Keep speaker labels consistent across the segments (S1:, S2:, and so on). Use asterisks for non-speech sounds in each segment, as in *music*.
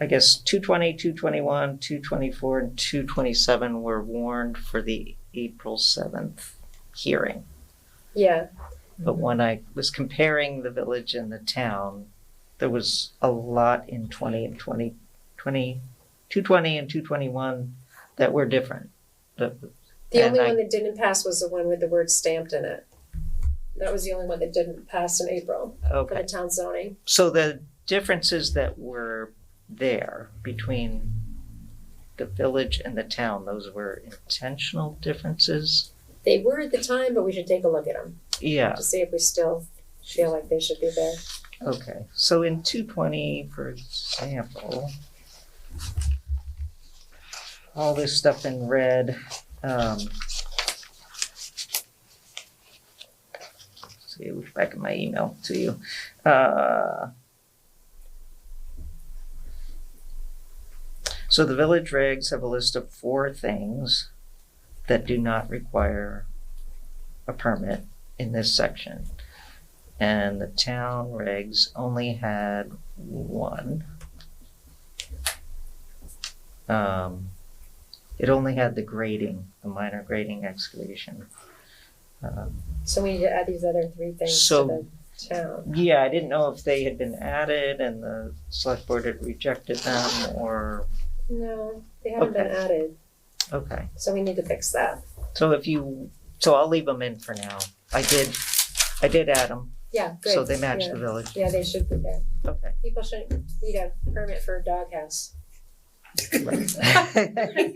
S1: I guess, 220, 221, 224, and 227 were warned for the April 7th hearing.
S2: Yeah,
S1: But when I was comparing the village and the town, there was a lot in 20 and 20, 20, 220 and 221 that were different. The-
S2: the
S1: And
S2: only
S1: I-
S2: one that didn't pass was the one with the word stamped in it. That was the only one that didn't pass in April for
S1: Okay,
S2: the town zoning.
S1: so the differences that were there between the village and the town, those were intentional differences?
S2: They were at the time, but we should take a look at them
S1: Yeah,
S2: to see if we still feel like they should be there.
S1: Okay, so in two twenty, for example, all this stuff in red, um. See, it was back in my email to you, uh. So the village regs have a list of four things that do not require a permit in this section. And the town regs only had one. Um, it only had the grading, the minor grading excavation. Um,
S2: So we need to add these other three things
S1: So-
S2: to the town.
S1: Yeah, I didn't know if they had been added and the select board had rejected them or,
S2: No, they haven't been
S1: Okay.
S2: added,
S1: okay.
S2: so we need to fix that.
S1: So if you, so I'll leave them in for now. I did, I did add them,
S2: Yeah, good.
S1: so they match
S2: Yeah.
S1: the village.
S2: Yeah, they should be there.
S1: Okay.
S2: People shouldn't need a permit for a
S1: *laughs*
S2: doghouse.
S3: I'm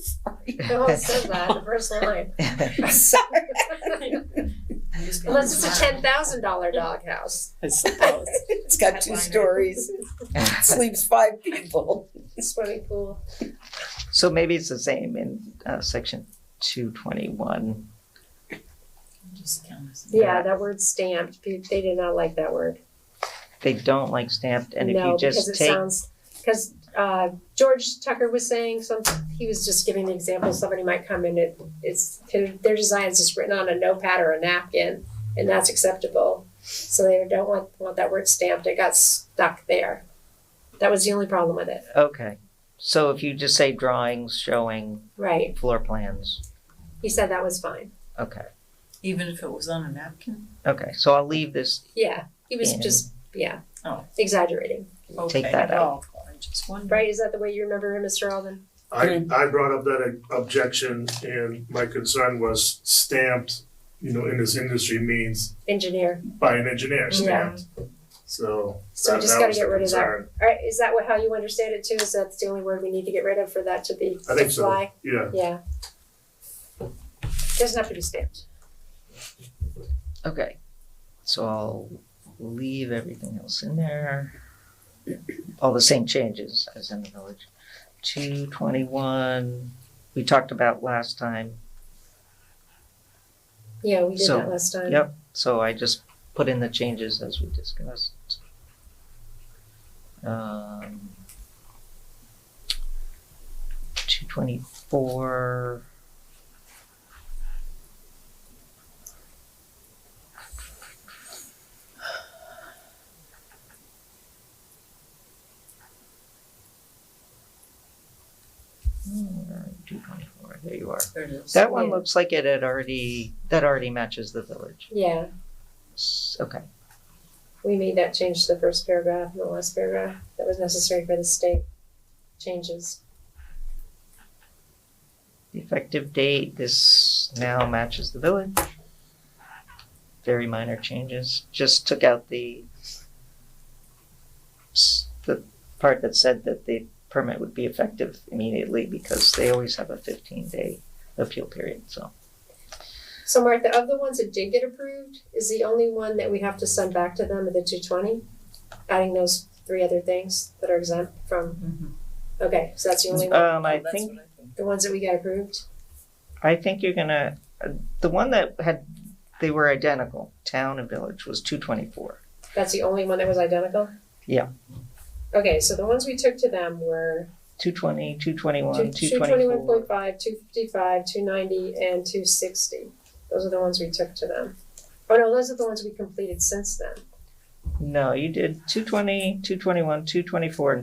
S3: sorry.
S2: No one says that in the first line. *laughs*
S1: *laughs*
S3: I'm sorry.
S2: Unless it's a ten thousand dollar doghouse.
S4: I suppose.
S3: It's got two
S1: *laughs*
S3: stories, sleeps five people.
S2: Swimming pool.
S1: So maybe it's the same in uh, section two twenty one. Uh,
S2: Yeah, that word stamped, pe- they did not like that word.
S1: They don't like stamped, and if
S2: No,
S1: you
S2: because
S1: just
S2: it
S1: take
S2: sounds, because, uh, George Tucker was saying some, he was just giving an example, somebody might come in, it, it's, their design is just written on a notepad or a napkin, and that's acceptable. So they don't want, want that word stamped, it got stuck there. That was the only problem with it,
S1: okay. So if you just say drawings showing
S2: right?
S1: floor plans,
S2: He said that was fine,
S1: okay,
S4: Even if it was on a napkin?
S1: okay. So I'll leave this.
S2: yeah, he was
S1: Yeah.
S2: just, yeah,
S4: Oh.
S2: exaggerating,
S4: Okay,
S1: that out.
S4: well, I just wondered.
S2: right, is that the way you remember him, Mr. Alden?
S5: I, I brought up that objection and my concern was stamped, you know, in this industry means
S2: Engineer.
S5: by an engineer
S2: Yeah.
S5: stamped. So
S2: So we
S5: that,
S2: just
S5: that
S2: gotta
S5: was the
S2: get rid of that.
S5: concern.
S2: Alright, is that what, how you understand it too? Is that the only word we need to get rid of for that to be
S5: I
S2: to
S5: think so,
S2: fly?
S5: yeah.
S2: Yeah. Doesn't have to be stamped.
S1: Okay, so I'll leave everything else in there. All the same changes as in the village. Two twenty one. We talked about last time,
S2: Yeah, we did
S1: So,
S2: that last time.
S1: yep. so I just put in the changes as we discussed. Um, two twenty-four. Hmm, Two twenty-four, there you are.
S4: There it is.
S1: That one
S2: Yeah.
S1: looks like it had already, that already matches the village.
S2: Yeah,
S1: S- Okay,
S2: we made that change to the first paragraph and the last paragraph. That was necessary for the state changes.
S1: the effective date, this now matches the village. Very minor changes, just took out the s- the part that said that the permit would be effective immediately because they always have a fifteen day appeal period, so.
S2: So Martha, of the ones that did get approved, is the only one that we have to send back to them the two twenty? Adding those three other things that are exempt from,
S4: Mhm.
S2: okay, so that's the only one,
S1: Um, I
S4: Oh, that's
S1: think
S4: what I think.
S2: the ones that we got approved?
S1: I think you're gonna, uh, the one that had, they were identical, town and village was two twenty-four.
S2: That's the only one that was identical?
S1: Yeah.
S2: Okay, so the ones we took to them were
S1: Two twenty, two
S2: two
S1: twenty-one, two
S2: twenty-one
S1: twenty-four.
S2: point five, two fifty-five, two ninety, and two sixty. Those are the ones we took to them. Oh no, those are the ones we completed since then.
S1: No, you did two twenty, two twenty-one, two twenty-four, and